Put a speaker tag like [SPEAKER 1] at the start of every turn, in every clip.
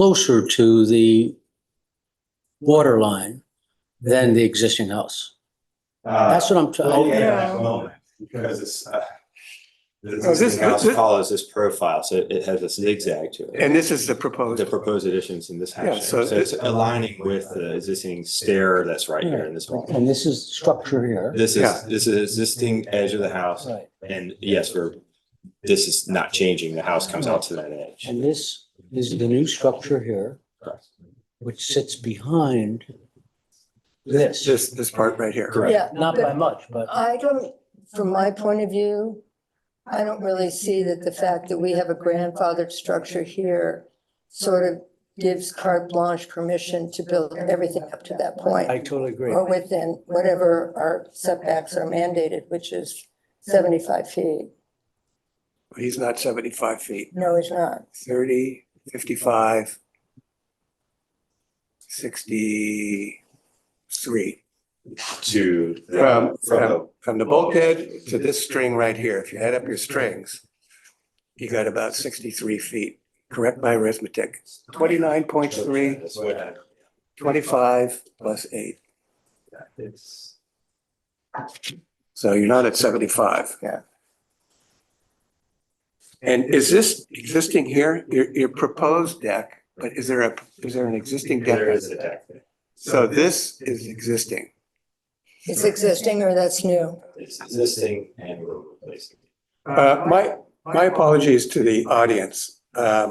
[SPEAKER 1] closer to the water line than the existing house. That's what I'm
[SPEAKER 2] Well,
[SPEAKER 1] trying,
[SPEAKER 2] yeah,
[SPEAKER 3] Yeah.
[SPEAKER 2] at the moment, Uh, oh, because it's, uh, the
[SPEAKER 3] Oh, this-
[SPEAKER 2] existing house
[SPEAKER 3] this-
[SPEAKER 2] follows this profile, so it has a zigzag to it.
[SPEAKER 3] And this is the
[SPEAKER 2] The
[SPEAKER 3] proposed.
[SPEAKER 2] proposed additions in this
[SPEAKER 3] Yeah,
[SPEAKER 2] house, so
[SPEAKER 3] so
[SPEAKER 2] it's
[SPEAKER 3] it-
[SPEAKER 2] aligning with the existing stair that's right here in this one.
[SPEAKER 1] and this is structure here.
[SPEAKER 2] This is,
[SPEAKER 3] Yeah.
[SPEAKER 2] this is existing edge of the house,
[SPEAKER 1] Right.
[SPEAKER 2] and yes, we're, this is not changing, the house comes out to that edge.
[SPEAKER 1] And this is the new structure here, which sits behind this,
[SPEAKER 3] This, this part right here.
[SPEAKER 2] Correct.
[SPEAKER 4] Yeah, Uh,
[SPEAKER 1] not by much, but.
[SPEAKER 4] I don't, from my point of view, I don't really see that the fact that we have a grandfathered structure here sort of gives carte blanche permission to build everything up to that
[SPEAKER 1] I
[SPEAKER 4] point
[SPEAKER 1] totally agree.
[SPEAKER 4] or within whatever our setbacks are mandated, which is seventy-five feet.
[SPEAKER 3] He's not seventy-five feet,
[SPEAKER 4] No, it's not.
[SPEAKER 3] 30, 55, 63.
[SPEAKER 2] To. the-
[SPEAKER 3] From,
[SPEAKER 2] from the-
[SPEAKER 3] from, from the bulkhead to this string right here, if you add up your strings, you got about sixty-three feet. Correct my arithmetic. Twenty-nine point three,
[SPEAKER 2] That's what-
[SPEAKER 3] twenty-five plus eight.
[SPEAKER 2] It's.
[SPEAKER 3] So you're not at seventy-five. Yeah. And is this existing here, your, your proposed deck, but is there a, is there an existing deck?
[SPEAKER 2] There is a deck.
[SPEAKER 3] So this is existing.
[SPEAKER 4] It's existing or that's new.
[SPEAKER 2] It's existing and we're replacing.
[SPEAKER 3] Uh, my, my apologies to the audience. Um,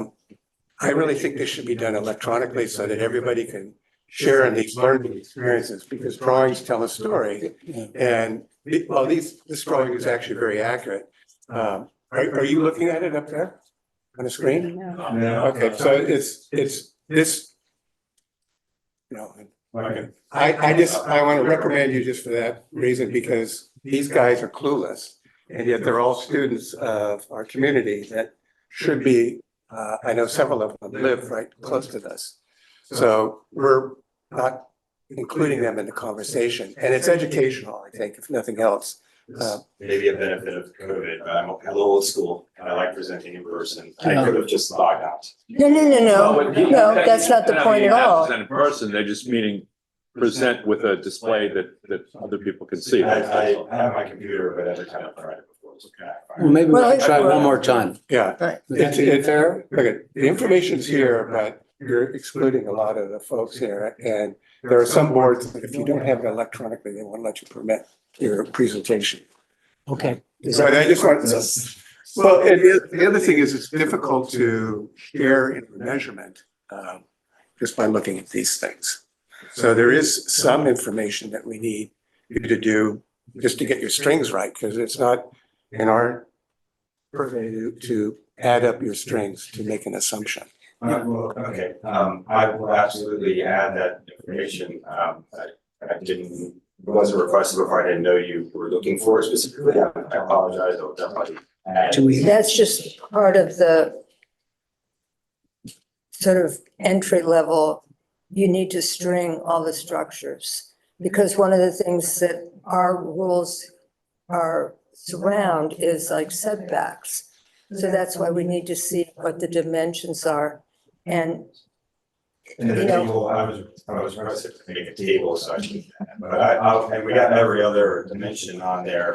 [SPEAKER 3] I really think this should be done electronically so that everybody can share in these learning experiences because drawings tell a story. And, the- well, these, this drawing is actually very accurate. Um, are, are you looking at it up there on the screen? Okay, so it's, it's this. You know,
[SPEAKER 2] Okay.
[SPEAKER 3] I, I just, I want to recommend you just for that reason, because these guys are clueless. And yet they're all students of our community that should be, uh, I know several of them live right close to this. So we're not including them in the conversation and it's educational, I think, if nothing else. Uh,
[SPEAKER 2] Maybe a benefit of COVID, but I'm a little old school and I like presenting in person. I could have just logged out.
[SPEAKER 4] No, no, no, no.
[SPEAKER 5] Well, you-
[SPEAKER 4] No, that's not the
[SPEAKER 5] they're
[SPEAKER 4] point at
[SPEAKER 5] meaning not
[SPEAKER 4] all.
[SPEAKER 5] present In person, they're just meaning present with a display that, that other people can
[SPEAKER 2] I,
[SPEAKER 5] see.
[SPEAKER 2] I I have my computer, but every time I tried it before, it's
[SPEAKER 1] Well,
[SPEAKER 2] okay.
[SPEAKER 1] maybe we
[SPEAKER 4] Well,
[SPEAKER 1] should
[SPEAKER 4] it-
[SPEAKER 1] try one more time.
[SPEAKER 3] yeah.
[SPEAKER 1] Would that
[SPEAKER 3] It's-
[SPEAKER 1] be
[SPEAKER 3] it's-
[SPEAKER 1] fair?
[SPEAKER 3] Okay, the information's here, but you're excluding a lot of the folks here, and there are some boards, that if you don't have it electronically, they won't let you permit your presentation.
[SPEAKER 1] Okay. Is
[SPEAKER 3] So
[SPEAKER 1] that-
[SPEAKER 3] I just want, well, and the- the other thing is, it's difficult to share in measurement, um, just by looking at these things. So there is some information that we need you to do, just to get your strings right, because it's not in our purview to- to add up your strings to make an assumption.
[SPEAKER 2] Uh, well, Okay, um, I will absolutely add that information. Um, I, I didn't, it wasn't requested before. I didn't know you were looking for it specifically. I I apologize. I'll definitely add.
[SPEAKER 1] Do we,
[SPEAKER 4] That's just part of the sort of entry level, you need to string all the structures. Because one of the things that our rules are surround is like setbacks. So that's why we need to see what the dimensions are. And
[SPEAKER 2] And the
[SPEAKER 4] Yeah.
[SPEAKER 2] table, I was, I was requested to make a table, so I can, but I, I, and we got every other dimension on there,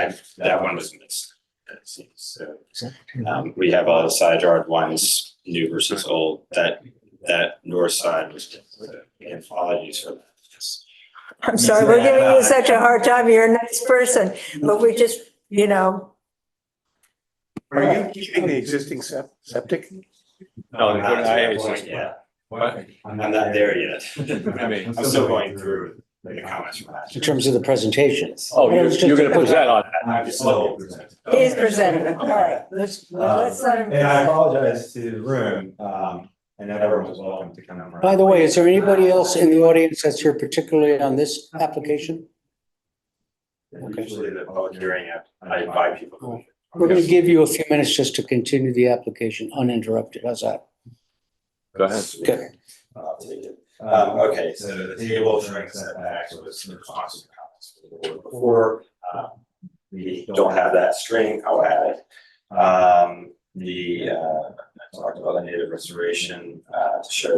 [SPEAKER 2] I, that one was missed. It seems, so, um, we have all the side yard ones, new versus old, that, that north side was, and apologies for that. Yes.
[SPEAKER 4] I'm sorry, we're giving you such a hard time. You're a nice person, but we just, you know,
[SPEAKER 3] Are you keeping the existing sep- septic?
[SPEAKER 2] Not
[SPEAKER 5] No,
[SPEAKER 2] to
[SPEAKER 5] I-
[SPEAKER 2] that
[SPEAKER 5] I-
[SPEAKER 2] point yet.
[SPEAKER 5] What?
[SPEAKER 2] I'm not there yet. I
[SPEAKER 5] mean-
[SPEAKER 2] am still going through the comments from
[SPEAKER 1] in
[SPEAKER 2] that.
[SPEAKER 1] terms of the presentations?
[SPEAKER 5] Oh, you're, you're gonna present on that.
[SPEAKER 2] I'm still.
[SPEAKER 4] he's presenting. All right,
[SPEAKER 1] Let's,
[SPEAKER 4] let's let him.
[SPEAKER 2] And I apologize to the room, um, and everyone was welcome to come around.
[SPEAKER 1] By the way, is there anybody else in the audience that's here particularly on this application? okay.
[SPEAKER 2] Usually the public hearing, I invite people.
[SPEAKER 1] We're gonna give you a few minutes just to continue the application uninterrupted. How's that?
[SPEAKER 5] Go ahead.
[SPEAKER 1] Good.
[SPEAKER 2] I'll take it. Um, okay, so the table during setbacks was in response to comments from the board before. Um, We don't have that string, I'll add it. Um, the, uh, I talked about the native restoration, uh, to show